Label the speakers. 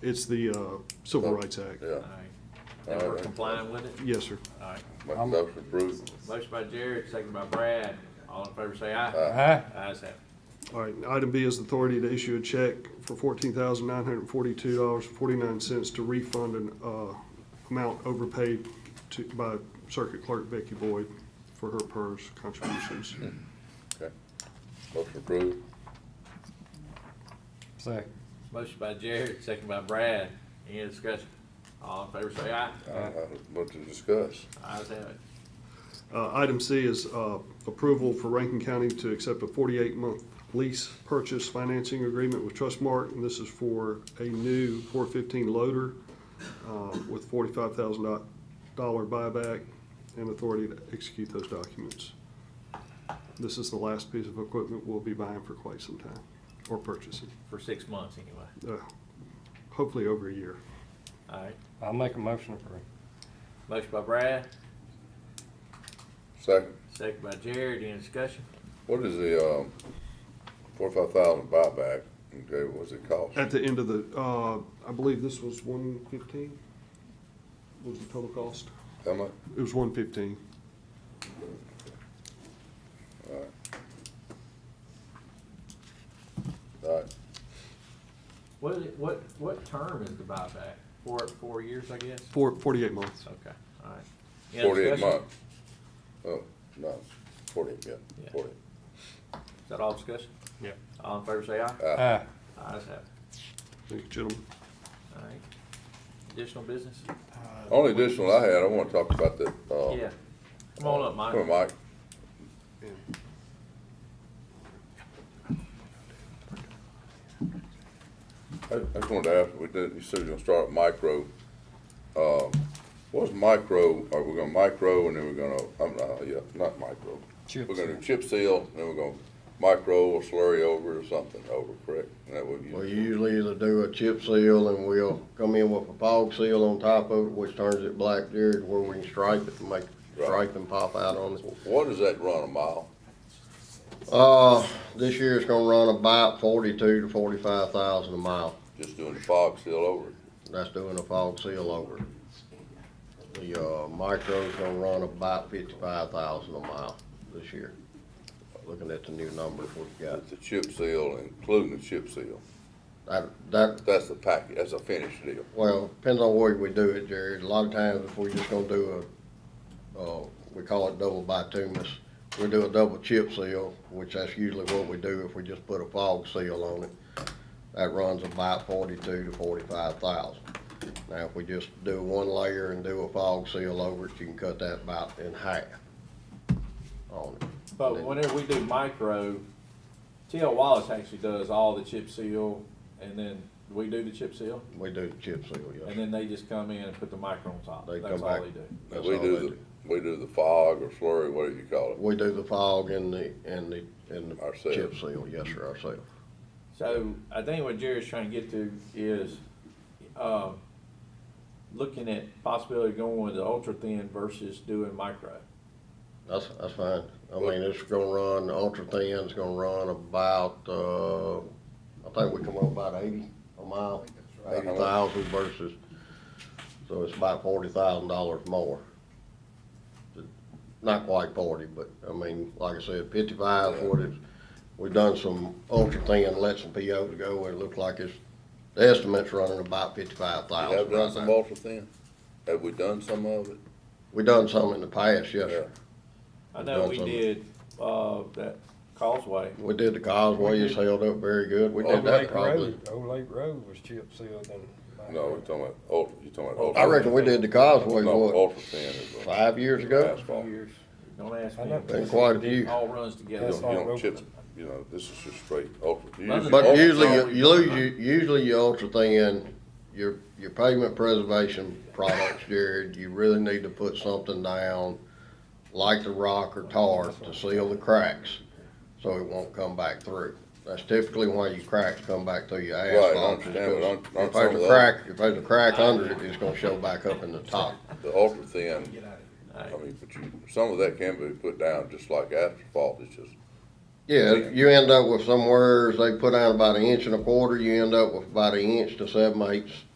Speaker 1: It's the uh, Civil Rights Act.
Speaker 2: Yeah.
Speaker 3: And
Speaker 2: All
Speaker 3: we're
Speaker 2: right.
Speaker 3: complying with it?
Speaker 1: Yes, sir.
Speaker 3: All right.
Speaker 2: Make a motion to approve.
Speaker 3: Motion by Jared, second by Brad. All in favor say aye.
Speaker 4: Aye.
Speaker 3: Ayes have it.
Speaker 1: All right, item B is authority to issue a check for fourteen thousand nine hundred and forty-two dollars, forty-nine cents to refund an, uh, amount overpaid to, by Circuit Clerk Becky Boyd for her PERS contributions.
Speaker 2: Okay. Motion approved.
Speaker 4: Second.
Speaker 3: Motion by Jared, second by Brad. Any discussion? All in favor say aye.
Speaker 2: Uh, What to discuss?
Speaker 3: Ayes have it.
Speaker 1: Uh, item C is, uh, approval for Rankin County to accept a forty-eight month lease purchase financing agreement with Trustmark, and this is for a new four fifteen loader, uh, with forty-five thousand dollar buyback and authority to execute those documents. This is the last piece of equipment we'll be buying for quite some time, or purchasing,
Speaker 3: For six months anyway.
Speaker 1: uh, hopefully over a year.
Speaker 3: All right.
Speaker 4: I'll make a motion to approve.
Speaker 3: Motion by Brad,
Speaker 2: Second,
Speaker 3: second by Jared. Any discussion?
Speaker 2: what is the, um, forty-five thousand buyback? Okay, what's it cost?
Speaker 1: At the end of the, uh, I believe this was one fifteen, was the total cost?
Speaker 2: How much?
Speaker 1: It was one fifteen.
Speaker 2: All right,
Speaker 3: What is it, what, what term is the buyback? Four, four years, I guess?
Speaker 1: Four, forty-eight months.
Speaker 3: Okay, all right. Any other
Speaker 2: forty-eight
Speaker 3: discussion?
Speaker 2: months. Oh, no, forty-eight, yeah,
Speaker 3: Yeah.
Speaker 2: forty.
Speaker 3: Is that all discussion?
Speaker 4: Yep.
Speaker 3: All in favor say aye.
Speaker 4: Aye.
Speaker 3: Ayes have it.
Speaker 1: Thank you, gentlemen.
Speaker 3: All right. Additional business?
Speaker 2: Only additional I had, I wanna talk about that, uh.
Speaker 3: Yeah. Come on up, Mike.
Speaker 2: Come on, Mike. I, I just wanted to ask, we did, you said you're gonna start with micro. Uh, what's micro, are we gonna micro and then we're gonna, I'm, uh, yeah, not micro.
Speaker 4: Chip
Speaker 2: We're gonna
Speaker 4: seal.
Speaker 2: do chip seal, and then we're gonna micro or slurry over or something over, correct? Is that what
Speaker 5: We
Speaker 2: you,
Speaker 5: usually either do a chip seal and we'll come in with a fog seal on top of it, which turns it black there to where we can stripe it and make
Speaker 2: Right.
Speaker 5: striping pop out on it.
Speaker 2: what does that run a mile?
Speaker 5: Uh, this year it's gonna run about forty-two to forty-five thousand a mile.
Speaker 2: Just doing the fog seal over it?
Speaker 5: That's doing a fog seal over. it. The, uh, micro's gonna run about fifty-five thousand a mile this year. Looking at the new numbers we've got.
Speaker 2: With the chip seal, including the chip seal.
Speaker 5: That, that,
Speaker 2: That's the package, that's a finished deal.
Speaker 5: Well, depends on where we do it, Jerry. A lot of times, if we're just gonna do a, uh, we call it double bituminous, we do a double chip seal, which that's usually what we do if we just put a fog seal on it. That runs about forty-two to forty-five thousand. Now, if we just do one layer and do a fog seal over it, you can cut that about in half on it.
Speaker 3: But whenever we do micro, TL Wallace actually does all the chip seal, and then we do the chip seal,
Speaker 5: We do the chip seal, yes.
Speaker 3: and then they just come in and put the micro on top.
Speaker 5: They
Speaker 3: That's
Speaker 5: come
Speaker 3: all
Speaker 5: back.
Speaker 3: they do.
Speaker 2: Now,
Speaker 5: That's
Speaker 2: we
Speaker 5: all
Speaker 2: do
Speaker 5: they
Speaker 2: the,
Speaker 5: do.
Speaker 2: we do the fog or slurry, whatever you call it.
Speaker 5: We do the fog and the, and the, and the
Speaker 2: Ourselves.
Speaker 5: chip seal, yes, sir, ourselves.
Speaker 3: So I think what Jerry's trying to get to is, um, looking at possibility of going with the ultra thin versus doing micro.
Speaker 5: That's, that's fine. I mean, it's gonna run, ultra thin. It's gonna run about, uh, I think we come up about eighty a mile,
Speaker 2: right.
Speaker 5: eighty thousand versus, so it's about forty thousand dollars more. Not quite forty, but, I mean, like I said, fifty-five, forty, we've done some ultra thin, let some POs go, where it looks like it's, the estimate's running about fifty-five
Speaker 2: We have
Speaker 5: thousand
Speaker 2: done
Speaker 5: right
Speaker 2: some
Speaker 5: now.
Speaker 2: ultra thin. Have we done some of it?
Speaker 5: We done some in the past, yes, sir.
Speaker 3: I know we
Speaker 5: Done some.
Speaker 3: did, uh, that causeway.
Speaker 5: We did Oh, the causeway, it's held up very good. We did
Speaker 4: Old
Speaker 5: that
Speaker 4: Lake
Speaker 5: probably.
Speaker 4: Road, Old Lake Road was chip sealed and.
Speaker 2: No, we're talking about ultra, you're talking about ultra.
Speaker 5: I reckon we did the causeway,
Speaker 2: No,
Speaker 5: what,
Speaker 2: ultra thin is. a-
Speaker 5: five years ago?
Speaker 2: Asphalt. You
Speaker 3: Years. Don't ask
Speaker 4: I
Speaker 3: me.
Speaker 4: know.
Speaker 5: Been quite a few.
Speaker 3: It All runs together.
Speaker 2: don't,
Speaker 4: That's
Speaker 2: you
Speaker 4: all
Speaker 2: don't
Speaker 4: over.
Speaker 2: chip, you know, this is just straight ultra. You
Speaker 3: But-
Speaker 2: usually
Speaker 5: But
Speaker 2: ultra-
Speaker 5: usually, you- you lose, your- usually your ultra thin, your, your pavement preservation products, Jared, you really need to put something down like the rock or tar to seal the cracks, so it won't come back through. That's typically why your cracks come back through your
Speaker 2: Right, I
Speaker 5: asphalt. is
Speaker 2: understand, but on-
Speaker 5: 'cause
Speaker 2: on
Speaker 5: If
Speaker 2: some of
Speaker 5: there's
Speaker 2: the-
Speaker 5: a crack, if there's a crack under it, it's gonna show back up in the top.
Speaker 2: The ultra thin,
Speaker 3: All
Speaker 2: I
Speaker 3: right.
Speaker 2: mean, but you, some of that can be put down just like asphalt, it's just,
Speaker 5: Yeah, you end up with somewhere, they put out about an inch and a quarter, you end up with about an inch to seven eighths